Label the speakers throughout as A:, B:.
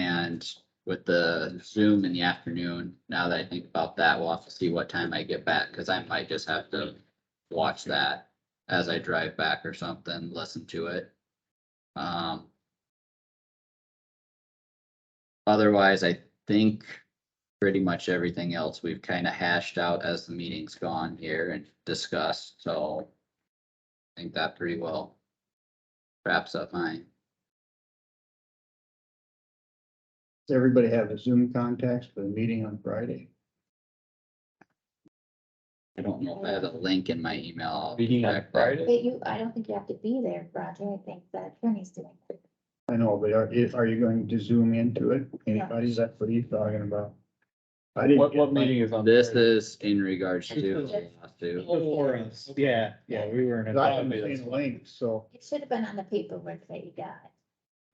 A: and with the Zoom in the afternoon, now that I think about that, we'll have to see what time I get back, cause I might just have to watch that as I drive back or something, listen to it. Um. Otherwise, I think pretty much everything else we've kind of hashed out as the meeting's gone here and discussed, so I think that pretty well wraps up mine.
B: Does everybody have a Zoom contacts for the meeting on Friday?
A: I don't know if I have a link in my email. I'll
C: Meeting on
A: check that.
C: Friday?
D: But you, I don't think you have to be there, Roger. I think the attorney's doing it.
B: I know, but are, i- are you going to zoom into it? Anybody's, that's what he's talking about. I didn't.
C: What, what
B: get my-
C: meeting is on?
A: This
C: Friday?
A: is in regards to, to,
E: Before us, yeah, yeah, we were in.
B: I
E: a
B: haven't seen the link, so
D: It should have been on the paperwork that you got.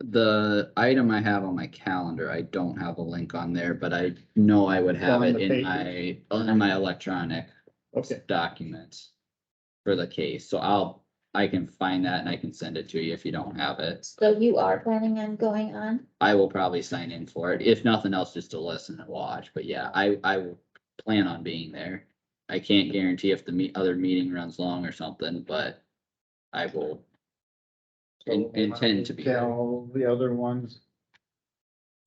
A: the item I have on my calendar, I don't have a link on there, but I know I would have
B: On
A: it
B: the
A: in
B: paper.
A: my, in my electronic
B: okay,
A: documents for the case, so I'll, I can find that and I can send it to you if you don't have it.
D: So you are planning on going on?
A: I will probably sign in for it, if nothing else, just to listen and watch, but yeah, I, I will plan on being there. I can't guarantee if the me, other meeting runs long or something, but I will. in- Intend to be there.
B: tell the other ones.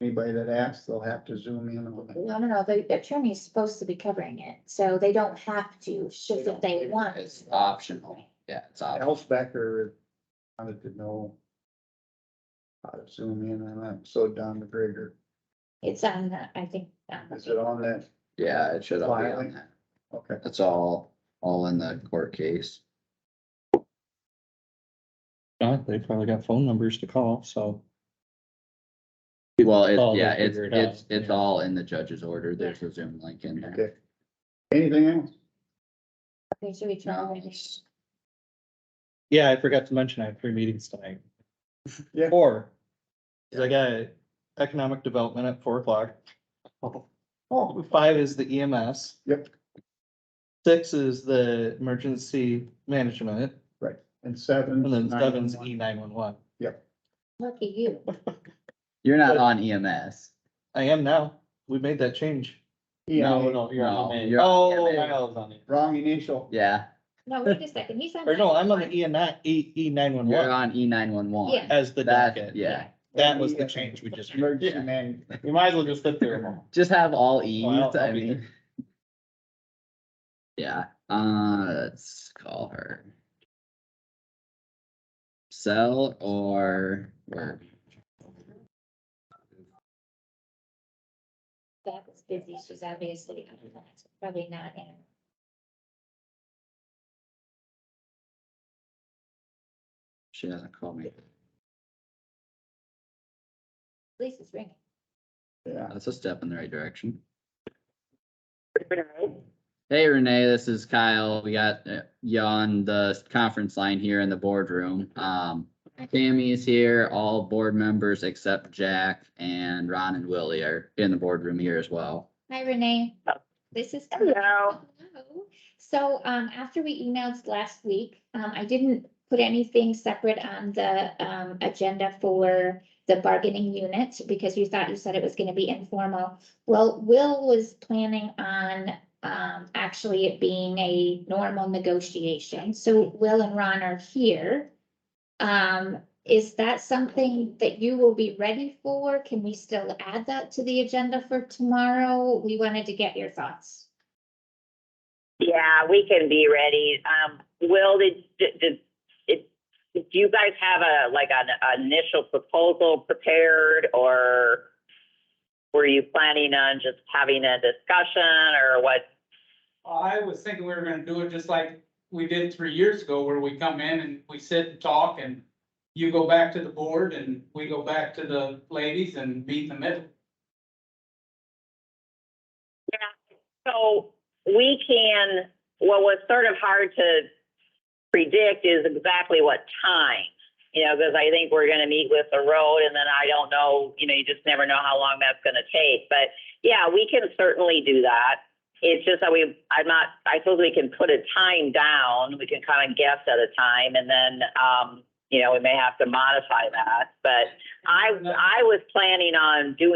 B: Anybody that asks, they'll have to zoom in on it.
D: No, no, no, the attorney's supposed to be covering it, so they don't have to, should if they want.
A: It's optional, yeah, it's optional.
B: Al Becker wanted to know. How to zoom in on it, so Don McGregor,
D: It's on, the- I think. um, on the
B: is it on that?
A: yeah, it should all be on
B: Filing.
A: that.
B: Okay,
A: That's all, all in the court case.
E: God, they probably got phone numbers to call, so.
A: Well,
E: Oh,
A: it's,
E: they
A: yeah, it's,
E: figure it out,
A: it's, it's
E: yeah.
A: all in the judge's order, there's a Zoom link in there.
B: okay. Anything else?
D: Okay, should we try?
A: No,
D: it?
A: it's-
E: Yeah, I forgot to mention I have three meetings tonight.
B: Yeah.
E: Four. 'Cause I got economic development at four o'clock. Oh, five is the EMS.
B: Yep.
E: Six is the emergency management,
B: And seven.
E: and then
B: nine,
E: seven's
B: one.
E: E nine one one.
D: Lucky you.
A: You're not on E EMS.
E: I am now. We made that change.
B: EMA.
C: No, no, you're
A: No,
C: on the main.
A: you're on the
E: Oh.
A: main.
C: Kyle's on it.
B: Wrong initial.
A: Yeah,
D: No, wait a second, he's on.
E: Or no, I'm on
D: the
E: the E and nine, E, E nine one
A: you're
E: one
A: on E nine one one.
D: Yeah.
E: as the
A: That,
E: docket.
A: yeah,
E: That was the change we just. made.
B: Emergency man,
C: You might as well just sit there.
A: just have all E's,
E: I'll-
A: I
E: I'll be
A: mean. Yeah, uh, let's call her. Sell or work?
D: That was busy, she's obviously, probably not in.
A: She hasn't called me.
D: Lisa's ringing.
B: yeah.
A: That's a step in the right direction. Hey Renee, this is Kyle. We got uh, you on the conference line here in the boardroom. Um, Tammy is here, all board members except Jack and Ron and Willie are in the boardroom here as well.
D: Hi Renee. This is.
F: Hello.
D: Hello. So um after we emailed last week, um I didn't put anything separate on the um agenda for the bargaining unit because you thought you said it was gonna be informal. Well, Will was planning on um actually it being a normal negotiation. So Will and Ron are here. Um, is that something that you will be ready for? Can we still add that to the agenda for tomorrow? We wanted to get your thoughts.
F: Yeah, we can be ready. Um, Will, did, did, did, it- do you guys have a, like, an initial proposal prepared? Or were you planning on just having a discussion or what?
G: I was thinking we were gonna do it just like we did three years ago, where we come in and we sit and talk and you go back to the board and we go back to the ladies and meet in the middle.
F: So we can, what was sort of hard to predict is exactly what time. You know, because I think we're going to meet with the road and then I don't know, you know, you just never know how long that's going to take. But yeah, we can certainly do that. It's just that we, I'm not, I suppose we can put a time down. We can kind of guess at a time and then, um, you know, we may have to modify that. But I, I was planning on doing.